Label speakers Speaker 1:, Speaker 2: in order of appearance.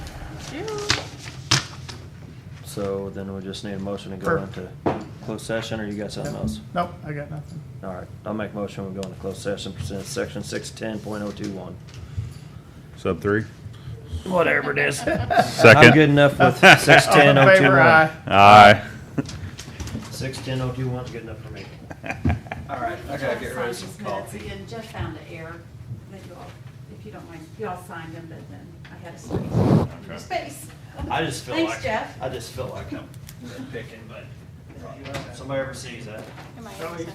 Speaker 1: So then we just need a motion to go
Speaker 2: Sure.
Speaker 1: into closed session, or you got something
Speaker 2: Nope.
Speaker 1: else?
Speaker 2: Nope, I got nothing.
Speaker 1: All right, I'll make a motion, we go into closed session, pursuant to section six ten point oh two one.
Speaker 3: Sub three?
Speaker 2: Whatever it is.
Speaker 1: I'm
Speaker 3: Second.
Speaker 1: good enough with six
Speaker 2: All in
Speaker 1: ten oh two
Speaker 2: favor, aye.
Speaker 1: one.
Speaker 3: Aye.
Speaker 1: Six ten oh two one's good enough for me.
Speaker 4: All right, I gotta get rid of some coffee.
Speaker 5: Again, Jeff found an error that you all, if you don't mind, you all signed them, but then I had a space. Space.
Speaker 1: I just feel like.
Speaker 5: Thanks, Jeff.
Speaker 1: I just feel like I'm picking, but if somebody ever sees that.
Speaker 6: Am I-